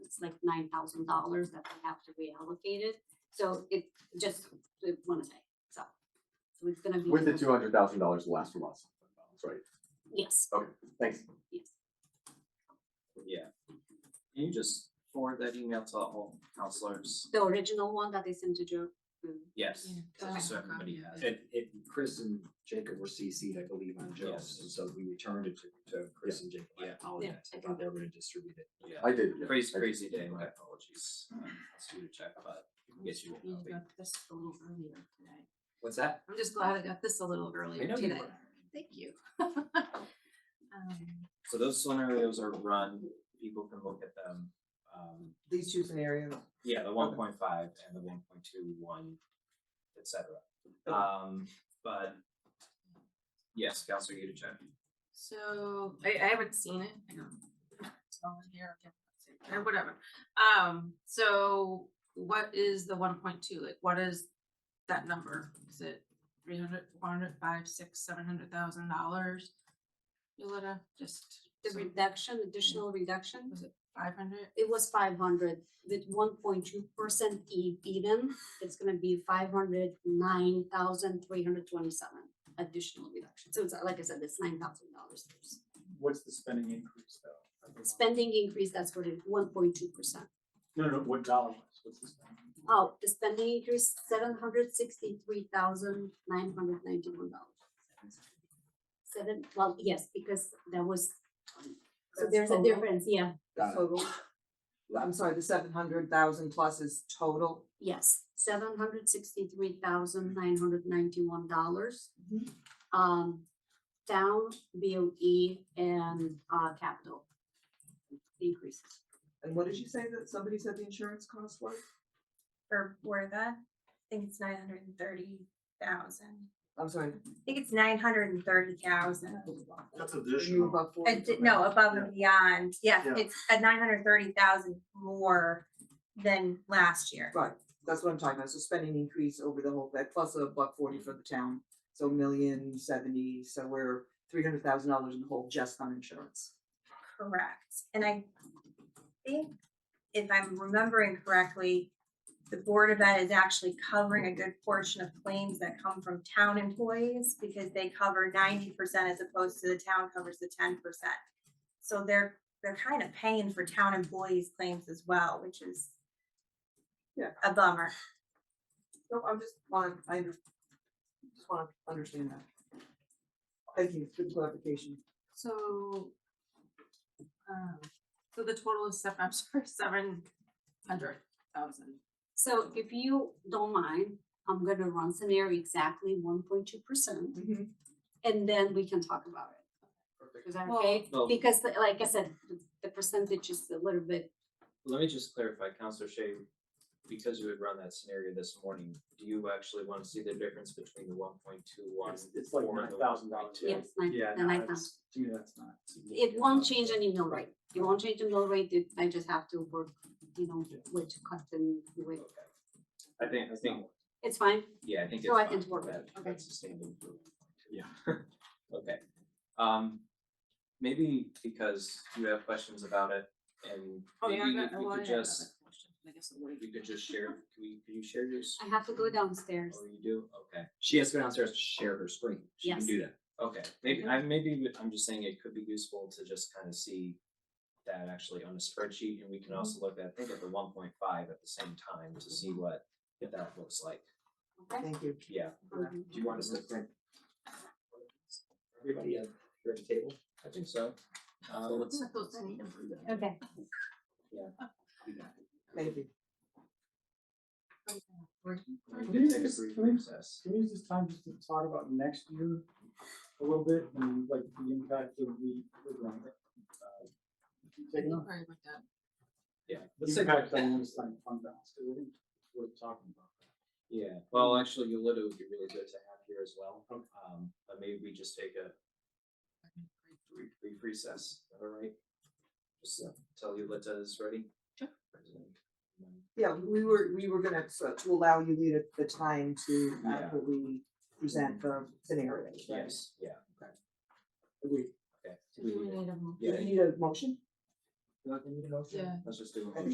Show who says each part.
Speaker 1: like nine thousand dollars that we have to reallocate it. So it just, we wanna say, so. So it's gonna be.
Speaker 2: With the two hundred thousand dollars last from us. Right,
Speaker 1: Yes,
Speaker 2: thanks.
Speaker 1: yes.
Speaker 3: Yeah. Can you just forward that email to all counselors?
Speaker 1: The original one that they sent to Joe. mm,
Speaker 3: Yes,
Speaker 1: okay.
Speaker 3: so everybody has it.
Speaker 4: And, and Chris and Jacob were CC'd, I believe, on Joe's,
Speaker 3: Yes.
Speaker 4: and so we returned it to, to Chris and Jacob. I
Speaker 3: Yeah.
Speaker 4: apologize, I
Speaker 1: okay.
Speaker 4: thought they were gonna distribute it.
Speaker 3: Yeah.
Speaker 2: I did, yeah,
Speaker 3: Crazy,
Speaker 2: I did.
Speaker 3: crazy day, my apologies. Um, Let's do a check, but I guess you
Speaker 5: You
Speaker 3: won't know.
Speaker 5: got this a little earlier today.
Speaker 3: What's that?
Speaker 5: I'm just glad I got this a little earlier
Speaker 3: know you
Speaker 5: today.
Speaker 3: were.
Speaker 5: Thank you. Um,
Speaker 3: So those scenarios are run, people can look at them. Um,
Speaker 6: These two scenarios.
Speaker 3: yeah, the one point five and the one point two one, et cetera. Um, but yes, Counselor Yudichak.
Speaker 5: So I, I haven't seen it. I don't- it's all in here, I can't see it, or whatever. Um, so what is the one point two? Like, what is that number? Is it three hundred, four hundred, five, six, seven hundred thousand dollars? Yolanda, just
Speaker 1: The reduction, additional reduction,
Speaker 5: five hundred?
Speaker 1: it was five hundred with one point two percent even. It's gonna be five hundred nine thousand three hundred twenty-seven additional reduction. So it's uh, like I said, it's nine thousand dollars.
Speaker 7: What's the spending increase though?
Speaker 1: Spending increase, that's what it, one point two percent.
Speaker 7: No, no, what dollar was, what's the spending?
Speaker 1: Oh, the spending increased seven hundred sixty-three thousand nine hundred ninety-one dollars. Seven, well, yes, because there was, um, so
Speaker 6: That's
Speaker 1: there's a
Speaker 6: total?
Speaker 1: difference, yeah,
Speaker 6: Got it.
Speaker 1: total,
Speaker 6: I'm sorry, the seven hundred thousand plus is total.
Speaker 1: yes, seven hundred sixty-three thousand nine hundred ninety-one dollars.
Speaker 6: Mm-hmm.
Speaker 1: Um, down, BOE and uh capital increases.
Speaker 6: And what did you say that somebody said the insurance cost was?
Speaker 8: for Wertha. I think it's nine hundred and thirty thousand.
Speaker 6: I'm sorry.
Speaker 8: I think it's nine hundred and thirty thousand.
Speaker 6: Oh,
Speaker 8: Uh,
Speaker 7: That's
Speaker 6: Move up forty.
Speaker 8: No, above and beyond. Yes,
Speaker 7: Yeah.
Speaker 8: it's a nine hundred and thirty thousand more than last year.
Speaker 6: Right, that's what I'm talking about, so spending increase over the whole, that plus a buck forty for the town, so million seventy, so we're three hundred thousand dollars in the hole just on insurance.
Speaker 8: Correct. And I think if I'm remembering correctly, the Board of Ed is actually covering a good portion of claims that come from town employees because they cover ninety percent as opposed to the town covers the ten percent. So they're, they're kind of paying for town employees' claims as well, which is
Speaker 6: Yeah.
Speaker 8: a bummer.
Speaker 6: So I'm just want, I under, just wanna understand that. Thank you for the clarification.
Speaker 5: So, um, so the total is seven, I'm sorry, seven hundred thousand.
Speaker 1: So if you don't mind, I'm gonna run scenario exactly one point two percent.
Speaker 8: Mm-hmm.
Speaker 1: and then we can talk about it. Is that
Speaker 5: Well-
Speaker 1: okay?
Speaker 3: Well-
Speaker 1: Because the- like I said, the- the percentage is a little bit,
Speaker 3: Let me just clarify, Counselor Shay, because you had run that scenario this morning, do you actually want to see the difference between the one point two one?
Speaker 7: It's- it's like $9,000 Yeah.
Speaker 1: yes, nine,
Speaker 7: Yeah,
Speaker 1: the
Speaker 7: no,
Speaker 1: nine
Speaker 7: that's-
Speaker 1: thousand.
Speaker 7: to me, that's not.
Speaker 1: It won't change any mill rate. It won't change the mill rate. It- I just have to work, you know,
Speaker 7: Yeah.
Speaker 1: which cut and with,
Speaker 3: Okay. I think, I think,
Speaker 1: it's fine.
Speaker 3: yeah, I think it's
Speaker 1: So I can
Speaker 3: fine.
Speaker 1: work with
Speaker 3: That-
Speaker 1: it. Okay.
Speaker 3: That's sustainable. for 1.2. Okay, um, maybe because you have questions about it and maybe
Speaker 5: Oh, I
Speaker 3: if
Speaker 5: got-
Speaker 3: we
Speaker 5: well, I
Speaker 3: could
Speaker 5: had another
Speaker 3: just,
Speaker 5: question, I guess I'll
Speaker 3: if
Speaker 5: wait.
Speaker 3: you could just share, can we, can you share yours?
Speaker 1: I have to go downstairs.
Speaker 3: Oh, you do? Okay.
Speaker 4: She has to go downstairs to share her screen, she
Speaker 1: Yes.
Speaker 4: can do that.
Speaker 3: Okay, maybe, I, maybe, we- I'm just saying it could be useful to just kind of see that actually on a spreadsheet, and we can also look at, I think at the one point five at the same time to see what that looks like,
Speaker 1: Okay?
Speaker 6: Thank you.
Speaker 3: yeah.
Speaker 1: Um,
Speaker 4: Do you want us to print? Everybody at, here at the table?
Speaker 3: I think so. Uh, hmm. let's,
Speaker 5: I thought I needed-
Speaker 1: Okay,
Speaker 6: Thank
Speaker 3: we
Speaker 6: you.
Speaker 3: can take a brief recess.
Speaker 7: Can we use this time just to talk about next year a little bit and like the impact of the. uh, taking off?
Speaker 5: Sorry about that.
Speaker 3: Yeah, let's take,
Speaker 7: Impact on this time fund balance, because I think it's worth talking about.
Speaker 3: yeah, well, actually, Yolita would be really good to have here as well,
Speaker 7: Okay.
Speaker 3: um, but maybe we just take a brief, brief recess, all right? Just uh, tell Yolita is ready.
Speaker 5: Sure.
Speaker 6: Yeah, we were, we were gonna, so to allow you the, the time to
Speaker 3: Yeah.
Speaker 6: adequately present the scenarios, right?
Speaker 3: Yes, yeah,
Speaker 6: Agreed.
Speaker 3: okay.
Speaker 5: So do we need a mo-
Speaker 3: Yeah,
Speaker 6: Do you need a motion?
Speaker 3: Not gonna need a motion?
Speaker 5: Yeah.
Speaker 3: Let's just do a
Speaker 6: I
Speaker 3: motion.